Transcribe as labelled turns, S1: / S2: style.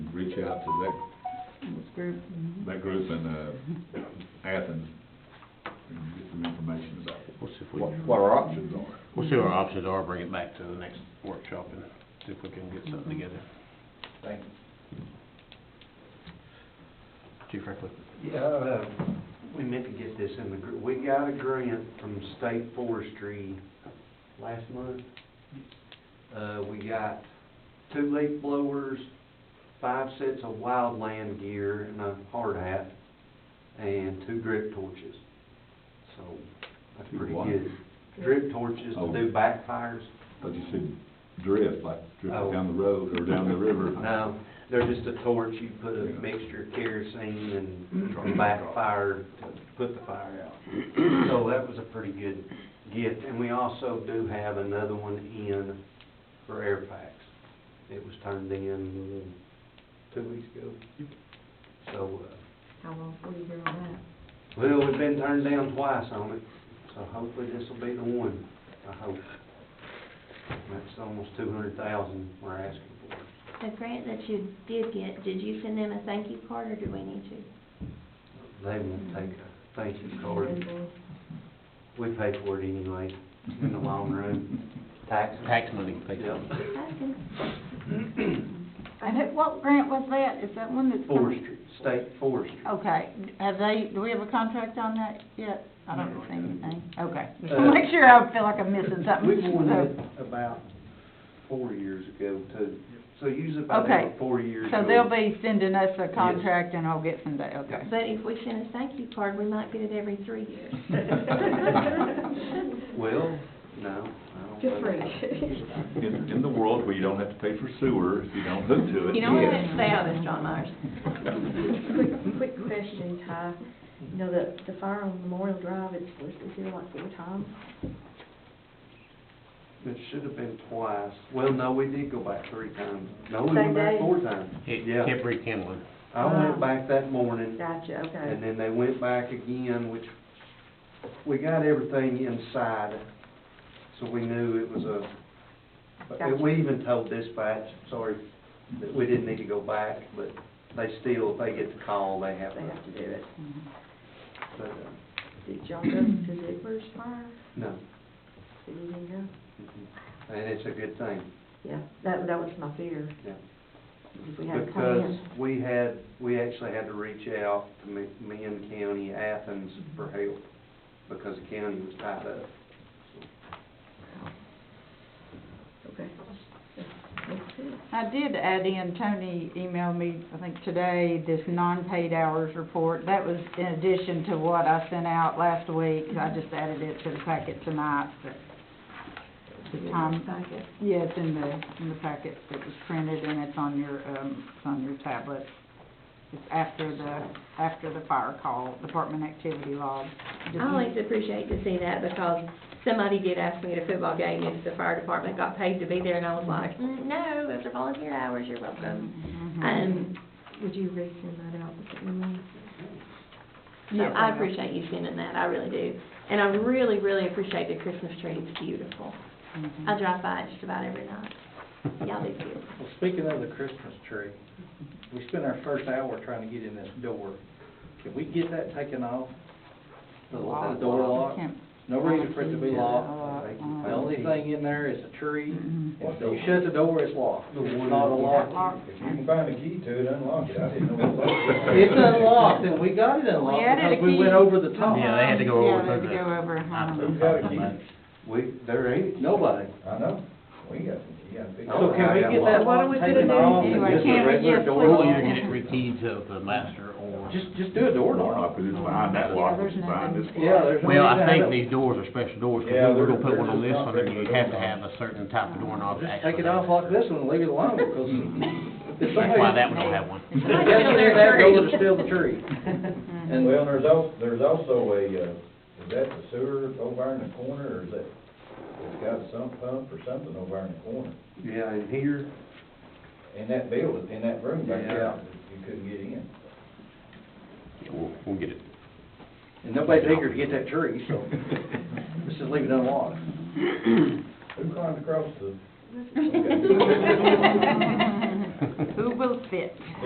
S1: reach out to
S2: This group.
S1: that, that group in, uh, Athens and get some information about
S3: We'll see if we,
S1: what, what our options are.
S3: we'll see what our options are, bring it back to the next workshop and see if we can get something together.
S4: Thank you.
S3: Chief Franklin?
S5: Yeah, uh, we meant to get this in the, gr- we got a grant from state forestry last month. Uh, we got two leaf blowers, five sets of wildland gear and a hard hat, and two drip torches. So, that's
S1: Two
S5: pretty
S1: what?
S5: good. Drip torches
S1: Oh.
S5: to do backfires.
S1: But you said drift, like drift
S5: Oh.
S1: down the road or down the river.
S5: No, Um, they're just a torch, you put a mixture of kerosene and backfire to put the fire out. So that was a pretty good gift, and we also do have another one in for air packs. It was turned in two weeks ago. So, uh,
S2: How long will you be on
S5: well, we've been turned down twice on it, so hopefully this will be the one, I hope. That's almost two hundred thousand we're asking for.
S6: The grant that you did get, did you send them a thank you card or do we need to?
S5: They won't take a thank you
S2: that?
S5: card. We pay for it anyway, in the long run, taxes.
S3: Tax money, thank you.
S5: Yeah.
S6: Okay.
S2: And it- what grant was that? Is that one that's? coming?
S5: Forestry, state forestry.
S2: Okay, have they, do we have a contract on that yet? I don't
S1: No.
S2: see anything. Okay, just
S5: Uh,
S2: to make sure I feel like I'm missing
S5: We
S2: something.
S5: won
S2: So-
S5: that about four years ago too, so usually about
S2: Okay.
S5: every four years.
S2: So
S5: we'll-
S2: they'll be sending us a contract and I'll get some day, okay.
S6: But if we send a thank you card, we might get it every three years.
S5: Well, no, I don't.
S2: Just
S5: think-
S2: free.
S1: In, in the world where you don't have to pay for sewer if you don't hook to it.
S6: You know what, stay out of this, John Myers.
S7: Quick, quick question, Ty. You know, the, the fire on Memorial Drive, it's listed here like four times.
S5: It should have been twice, well, no, we did go back three times, no, we
S7: Same
S5: went back
S7: day?
S5: four times.
S3: It
S5: Yeah,
S3: kept rekindling.
S5: I went back that morning,
S7: Gotcha,
S5: And
S7: okay.
S5: then they went back again, which, we got everything inside, so we knew it was a, but we even told dispatch, sorry, that we didn't need to go back, but they still, if they get the call, they have
S7: They have to do it.
S2: Mm-hmm.
S5: But, uh,
S7: Did y'all go to Zippers Fire?
S5: no,
S7: Did you didn't go?
S5: mhm. and it's a good thing,
S7: Yeah, that, that was my fear,
S5: yeah.
S7: if we had a
S5: Because
S7: plan.
S5: we had, we actually had to reach out to Ma- Meehan County, Athens for help, because the county was tied up.
S7: Okay. That's it.
S2: I did add in, Tony emailed me, I think today, this non-paid hours report. That was in addition to what I sent out last week. I just added it to the packet tonight, but the time, yeah, it's in the, in the packet that was printed and it's on your, um, it's on your tablet. It's after the, after the fire call, department activity log.
S6: I always appreciate to see that because somebody did ask me at a football game if the fire department got paid to be there and I was like, "Mm, no, those are volunteer hours, you're welcome.
S2: Mhm.
S6: Um,
S7: Would you resend that out with the email?
S6: So
S2: Yes,
S6: I
S2: will.
S6: appreciate you sending that, I really do. And I really, really appreciate the Christmas tree, it's beautiful.
S2: Mhm.
S6: I drive by it just about every night. Y'all do too.
S4: Well, speaking of the Christmas tree, we spent our first hour trying to get in this door. Can we get that taken off? The the door lock?
S2: Can't-
S4: No reason for it to be locked.
S2: Uh,
S4: The only thing in there is a tree.
S2: Mhm.
S4: If you shut the door, it's locked.
S5: The one-
S4: It's not a lock.
S2: Lock.
S8: If you can find a key to it, unlock it, I didn't know what it was.
S4: It's unlocked, and we got it
S2: We
S4: unlocked
S2: added a
S4: because we went
S2: key.
S4: over the top.
S3: Yeah, they had to go
S2: Yeah,
S3: over
S2: they had to
S3: the-
S2: go over, huh?
S8: Who's got a key?
S5: We, there ain't
S4: Nobody.
S8: I know, we got some key, I think.
S5: So can we get that
S4: What are
S5: lock
S4: we gonna
S5: taken
S4: do
S5: off and
S2: anyway?
S5: just a
S2: Can't we
S5: regular
S2: just
S5: door
S2: put-
S3: Or
S5: lock?
S3: you get it rekeyed to the master or.
S4: Just, just do a
S1: Door
S4: door lock.
S1: knock, but it's behind that lock, it's behind this lock.
S4: Yeah, there's no
S3: Well, I
S4: reason
S3: think
S4: to-
S3: these doors are special doors,
S8: Yeah,
S3: because we're gonna
S8: they're-
S3: put one on
S8: they're
S3: this
S8: just
S3: one, and
S8: not
S3: you
S8: regular
S3: have to
S8: door
S3: have a certain type of doorknob to
S4: Just
S3: actually.
S4: take it off like this one, and leave it alone, because if
S3: That's why that
S4: somebody,
S3: one don't have one.
S4: if somebody gets in there, they're going to steal the tree. And
S8: Well, there's also, there's also a, uh, is that the sewer over in the corner, or is that, it's got a sump pump or something over in the corner?
S5: Yeah, and here,
S8: In that building, in that room back there,
S5: Yeah.
S8: you couldn't get in.
S3: Yeah, We'll, weaw get it.
S4: and nobody's eager to get that tree, so let's just leave it unlocked.
S8: Who climbed across the
S2: Who will fit?